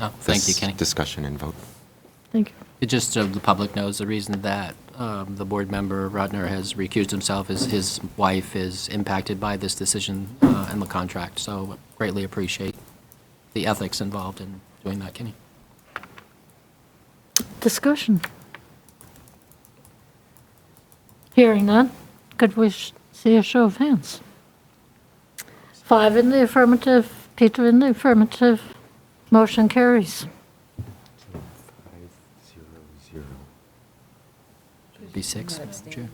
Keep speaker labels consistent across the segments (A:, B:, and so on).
A: Oh, thank you,
B: this
A: Kenny.
B: Discussion and vote.
C: Thank you.
A: It Just so the public knows, the reason that um, the board member Rodner has recused himself is his wife is impacted by this decision uh, and the contract, so greatly appreciate the ethics involved in doing that, Kenny.
C: Discussion. Hearing none, could we sh- see a show of hands? Five in the affirmative, Peter in the affirmative, motion carries.
A: Be six, Madam Chair.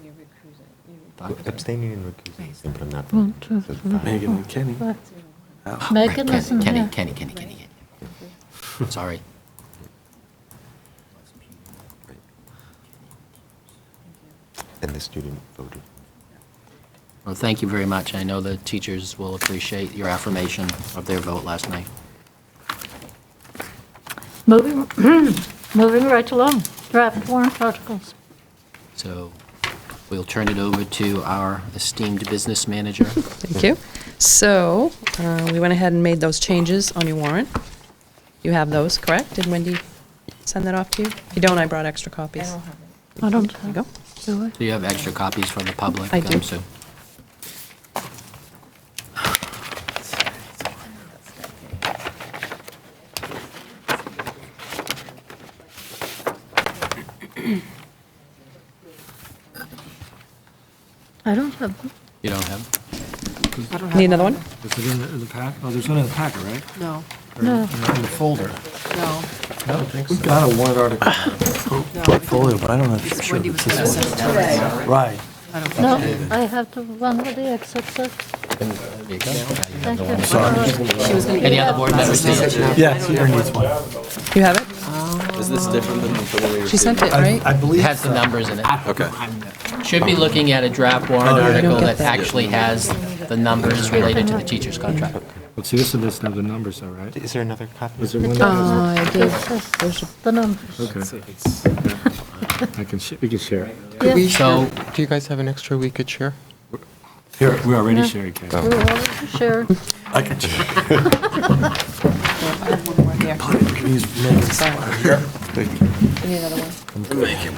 A: Five.
B: Abstaining and recusing. Sempre on that
C: One,
B: vote.
C: two,
B: So
C: three,
B: five.
D: Megan and Kenny.
C: five.
D: Ow.
C: Megan
A: Kenny,
C: isn't
A: Kenny,
C: here.
A: Oh. Kenny, Kenny, Kenny, Kenny. Sorry.
B: And the student voted.
A: Well, thank you very much. I know the teachers will appreciate your affirmation of their vote last night.
C: Moving, moving right along, draft warrant articles.
A: So we'll turn it over to our esteemed business manager.
E: Thank you. So, uh, we went ahead and made those changes on your warrant. You have those, correct? Did Wendy send that off to you? If you don't, I brought extra copies.
C: I don't
E: There you go.
C: have, do I?
A: Do you have extra copies for the public?
E: I do.
A: um, Sue?
C: I don't have them.
A: You don't have?
E: Need another one?
D: Is it in the, in the pack? Oh, there's one in the packet, right?
F: No,
D: Or in-
C: No.
D: In the in the folder?
F: no,
D: I don't think so. We've got a warrant article
F: no.
D: portfolio, but I don't know if it's
F: Because
D: sure.
F: Wendy was
D: it's
F: gonna
D: this
F: send it to us.
D: one. Right.
F: I don't
C: No,
F: think she did.
C: I have the one with the exit, sir. Thank you.
F: She was gonna
A: Any
F: email
A: other board members?
D: Yeah, Peter needs one.
E: You have it?
G: Is this different than the one we
E: She
G: received?
E: sent it,
D: I
E: right?
D: I believe.
A: It has the numbers in it.
G: Okay.
A: Should be looking at a draft warrant
D: yeah. I don't
A: article
E: get
A: that
E: that.
A: actually has the numbers related to the teacher's contract.
D: But see, this one doesn't have the numbers, though, right?
B: Is there another copy?
D: Is there one? that
E: Oh, I did.
C: This is the numbers.
D: has- Okay, I can, sh- we can share. it.
C: Yes,
B: We
A: So-
B: share, do you guys have an extra we could share?
D: Here, we're already
C: No.
D: sharing, Kenny.
C: we will share.
D: I can share.
F: one more here. You need another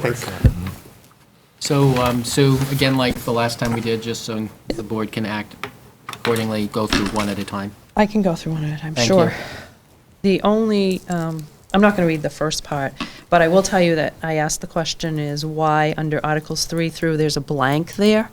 F: one?
A: So, um, Sue, again, like the last time we did, just so the board can act accordingly, go through one at a time.
E: I can go through one at a time,
A: Thank
E: sure.
A: you.
E: The only, um, I'm not going to read the first part, but I will tell you that I asked the question is why under Articles 3 through, there's a blank there?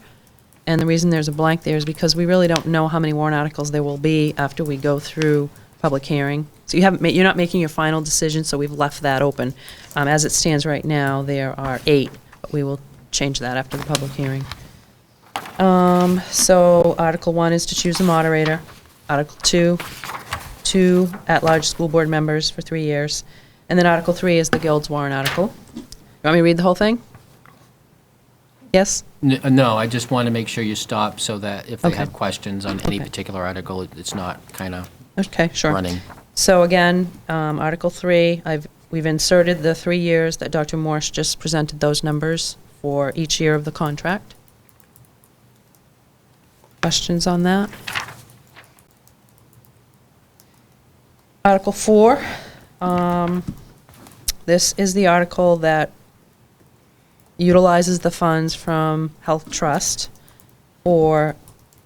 E: And the reason there's a blank there is because we really don't know how many warrant articles there will be after we go through public hearing. So you haven't, ma- you're not making your final decision, so we've left that open. Um, As it stands right now, there are eight, but we will change that after the public hearing. Um, So Article 1 is to choose a moderator. Article 2, two at-large school board members for three years. And then Article 3 is the Guild's warrant article. You want me to read the whole thing? Yes?
A: N- uh, No, I just want to make sure you stop so that if they
E: Okay.
A: have questions on any
E: Okay.
A: particular article, it- it's not kind of
E: Okay, sure.
A: running.
E: So again, um, Article 3, I've, we've inserted the three years that Dr. Morse just presented those numbers for each year of the contract. Questions on that? Article 4, um, this is the article that utilizes the funds from Health Trust for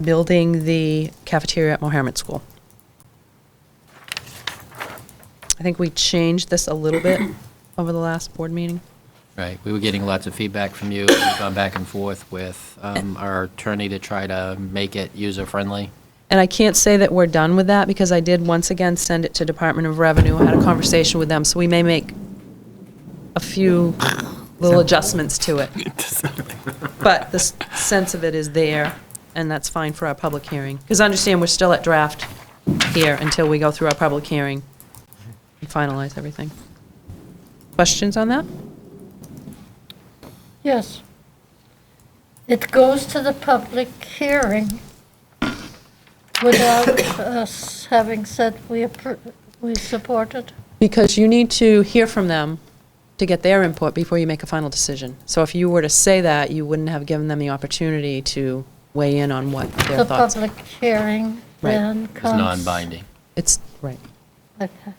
E: building the cafeteria at Mohammed School. I think we changed this a little bit over the last board meeting.
A: Right, we were getting lots of feedback from you, we've gone back and forth with um, our attorney to try to make it user-friendly.
E: And I can't say that we're done with that because I did once again send it to Department of Revenue. I had a conversation with them, so we may make a few little adjustments to it. But the s- sense of it is there, and that's fine for our public hearing. Because understand, we're still at draft here until we go through our public hearing and finalize everything. Questions on that?
C: Yes. It goes to the public hearing without us having said we appro, we support it.
E: Because you need to hear from them to get their input before you make a final decision. So if you were to say that, you wouldn't have given them the opportunity to weigh in on what their
C: The
E: thoughts.
C: public hearing
E: Right.
C: then
A: It's
C: comes.
A: non-binding.
E: It's, right.
C: Okay.